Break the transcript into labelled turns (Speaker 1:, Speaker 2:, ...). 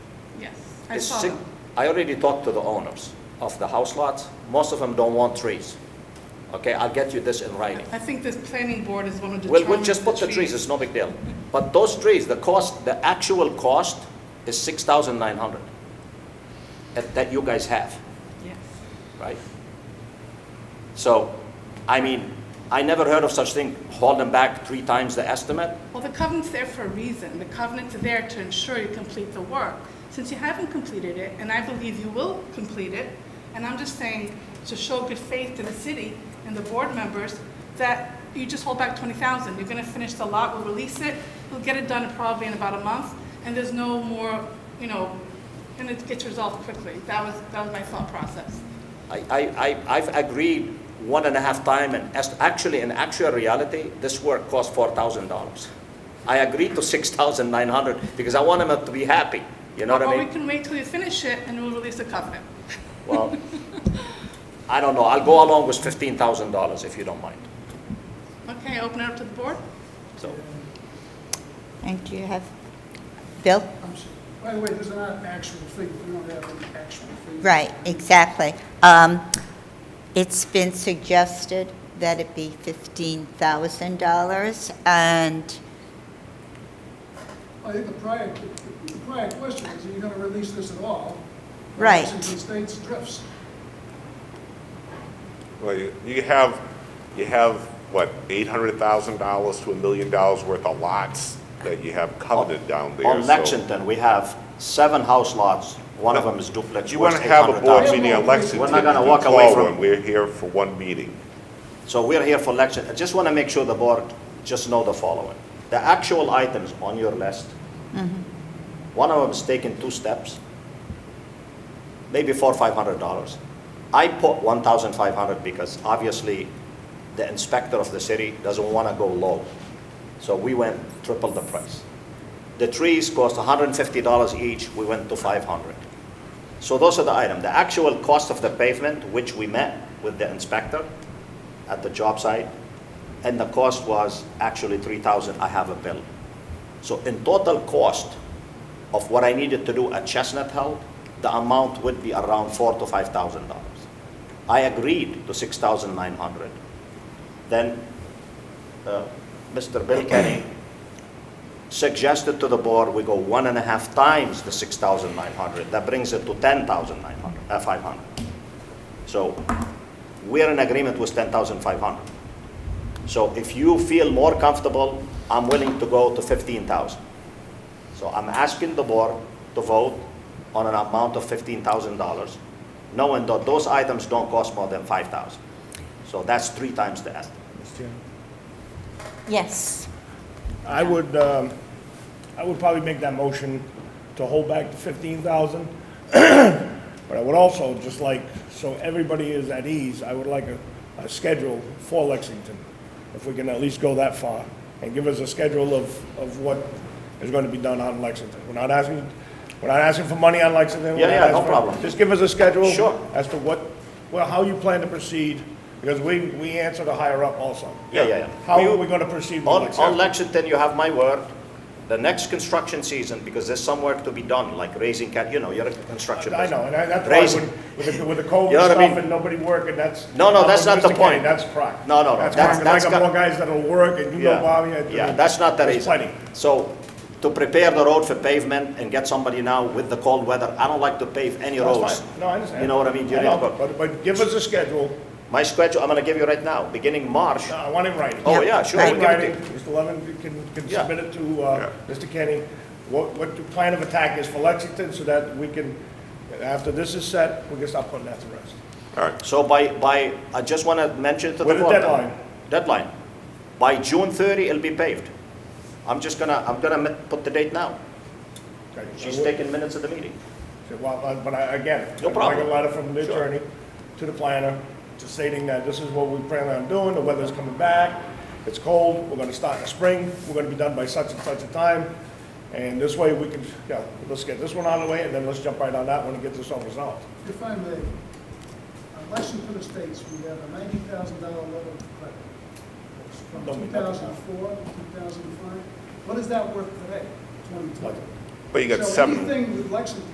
Speaker 1: Yes.
Speaker 2: I
Speaker 3: It's
Speaker 2: saw
Speaker 3: six-
Speaker 2: them.
Speaker 3: I already talked to the owners of the house lots. Most of them don't want trees. Okay, I'll get you this in writing.
Speaker 2: I think the planning board is one of the.
Speaker 3: We'll, we'll just put the trees, it's no big deal. But those trees, the cost, the actual cost is six thousand nine hundred that, that you guys have,
Speaker 2: Yes.
Speaker 3: right? So, I mean, I never heard of such thing, holding back three times the estimate.
Speaker 2: Well, the covenant's there for a reason. The covenant's there to ensure you complete the work. Since you haven't completed it, and I believe you will complete it, and I'm just saying to show good faith to the city and the board members that you just hold back twenty thousand. You're gonna finish the lot, we'll release it, we'll get it done probably in about a month, and there's no more, you know, and it gets resolved quickly. That was, that was my thought process.
Speaker 3: I, I, I- I've agreed one and a half time, and as, actually, in actual reality, this work cost four thousand dollars. I agreed to six thousand nine hundred, because I want them to be happy, you know what I
Speaker 2: Or we
Speaker 3: mean?
Speaker 2: can wait till you finish it and we'll release the covenant.
Speaker 3: Well, I don't know, I'll go along with fifteen thousand dollars, if you don't mind,
Speaker 2: Okay, open it up to the board?
Speaker 3: so.
Speaker 4: Thank you. Have, Bill?
Speaker 5: I'm sorry. By the way, there's not an actual fee, we don't have an actual fee.
Speaker 4: Right, exactly. Um, It's been suggested that it be $15,000, and
Speaker 5: I think the prior, the prior question is, are you gonna release this at all?
Speaker 4: Right.
Speaker 5: Since the state's drifts.
Speaker 6: Well, you you have, you have, what, $800,000 to a million dollars worth of lots that you have
Speaker 3: Oh,
Speaker 6: coveted down there.
Speaker 3: On
Speaker 6: so-
Speaker 3: Lexington, we have seven house lots, one of them is duplex,
Speaker 6: You
Speaker 3: worth
Speaker 6: want to have a board
Speaker 3: 800,000.
Speaker 6: meeting on Lexington.
Speaker 3: We're not gonna
Speaker 6: you can
Speaker 3: walk away
Speaker 6: call
Speaker 3: from-
Speaker 6: one. We're here for one meeting.
Speaker 3: So we're here for Lexington, I just want to make sure the board just know the following. The actual items on your list, one of them is taking two steps, maybe four, five hundred dollars. I put one thousand five hundred because obviously the inspector of the city doesn't want to go low. So we went triple the price. The trees cost hundred and fifty dollars each, we went to five hundred. So those are the item. The actual cost of the pavement, which we met with the inspector at the job site, and the cost was actually three thousand, I have a bill. So in total cost of what I needed to do at Chestnut Hill, the amount would be around four to five thousand dollars. I agreed to six thousand nine hundred. Then, uh, Mr. Bill Kenny suggested to the board, we go one and a half times the six thousand nine hundred. That brings it to ten thousand nine hundred, uh, five hundred. So we're in agreement with ten thousand five hundred. So if you feel more comfortable, I'm willing to go to fifteen thousand. So I'm asking the board to vote on an amount of fifteen thousand dollars, knowing that those items don't cost more than five thousand. So that's three times the estimate.
Speaker 7: Mr. Chairman.
Speaker 4: yes,
Speaker 7: I would, um, I would probably make that motion to hold back the fifteen thousand. But I would also, just like, so everybody is at ease, I would like a, a schedule for Lexington, if we can at least go that far, and give us a schedule of, of what is going to be done on Lexington. We're not asking, we're not asking for money on Lexington. we're
Speaker 3: Yeah,
Speaker 7: not
Speaker 3: yeah, no
Speaker 7: asking for-
Speaker 3: problem.
Speaker 7: Just give us a schedule.
Speaker 3: Sure.
Speaker 7: As to what, well, how you plan to proceed, because we, we answer the higher up also.
Speaker 3: Yeah, yeah, yeah.
Speaker 7: How are we going to proceed with
Speaker 3: On,
Speaker 7: Lexington?
Speaker 3: on Lexington, you have my word, the next construction season, because there's some work to be done, like raising cat, you know, you're a construction
Speaker 7: I know,
Speaker 3: business.
Speaker 7: and I- that's why
Speaker 3: Raising-
Speaker 7: when- with the, with the COVID
Speaker 3: You know what I mean?
Speaker 7: stuff and nobody working, that's.
Speaker 3: No, no,
Speaker 7: I'm
Speaker 3: that's not the point.
Speaker 7: sophisticated, That's crap.
Speaker 3: No, no, no,
Speaker 7: That's
Speaker 3: that's-
Speaker 7: crap, I
Speaker 3: that's
Speaker 7: got
Speaker 3: got-
Speaker 7: more guys that'll work and you know
Speaker 3: Yeah.
Speaker 7: Bobby. I-
Speaker 3: Yeah, that's not the
Speaker 7: there's
Speaker 3: reason.
Speaker 7: plenty.
Speaker 3: So, to prepare the road for pavement and get somebody now with the cold weather, I don't like to pave any
Speaker 7: That's
Speaker 3: roads.
Speaker 7: fine. No, I understand.
Speaker 3: You know what I mean? You
Speaker 7: I
Speaker 3: need to
Speaker 7: know,
Speaker 3: go-
Speaker 7: But, but give us a schedule,
Speaker 3: My schedule, I'm gonna give you right now, beginning March.
Speaker 7: No, I want it writing.
Speaker 3: Oh,
Speaker 4: Yeah,
Speaker 3: yeah, sure,
Speaker 4: right.
Speaker 3: we'll
Speaker 7: In
Speaker 3: give it to
Speaker 7: writing,
Speaker 3: you.
Speaker 7: Mr. Levin you can, can
Speaker 3: Yeah.
Speaker 7: submit it to, uh, Mr. Kenny, what, what the plan of attack is for Lexington so that we can, after this is set, we can stop putting that to rest.
Speaker 6: All right,
Speaker 3: So by, by, I just wanna mention to the
Speaker 7: With a
Speaker 3: board.
Speaker 7: deadline.
Speaker 3: Deadline. By June thirty, it'll be paved. I'm just gonna, I'm gonna mi- put the date now.
Speaker 7: Okay, so
Speaker 3: She's
Speaker 7: we'll-
Speaker 3: taking minutes of the meeting.
Speaker 7: So, Well, uh, but I, again,
Speaker 3: No
Speaker 7: I got
Speaker 3: problem.
Speaker 7: a letter from the
Speaker 3: Sure.
Speaker 7: attorney to the planner just stating that this is what we plan on doing, the weather's coming back, it's cold, we're gonna start in the spring, we're gonna be done by such and such a time. And this way we can, yeah, let's get this one out of the way and then let's jump right on that one and get this all resolved.
Speaker 5: If I may, on Lexington Estates, we have a ninety thousand dollar letter of credit. It's From
Speaker 7: Don't
Speaker 5: two
Speaker 7: make that up.
Speaker 5: thousand four, two thousand five, what is that worth today, twenty twenty?
Speaker 6: but you got
Speaker 5: So
Speaker 6: seven.
Speaker 5: anything with Lexington